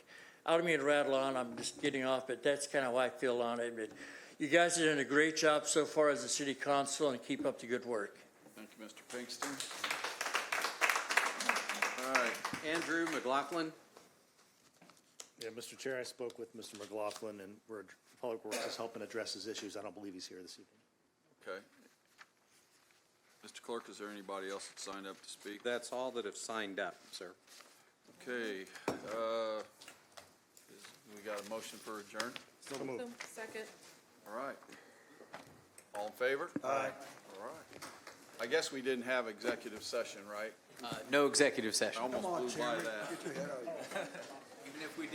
I don't mean to rattle on, I'm just getting off, but that's kind of how I feel on it. But you guys are doing a great job so far as a city council and keep up the good work. Thank you, Mr. Pinkston. All right, Andrew McLaughlin. Yeah, Mr. Chair, I spoke with Mr. McLaughlin, and we're, Public Works is helping address his issues. I don't believe he's here this evening. Okay. Mr. Clerk, is there anybody else that signed up to speak? That's all that have signed up, sir. Okay, uh, is- we got a motion for adjourn? So moved. Second. All right. All in favor? Aye. All right. I guess we didn't have executive session, right? No executive session. I almost blew by that.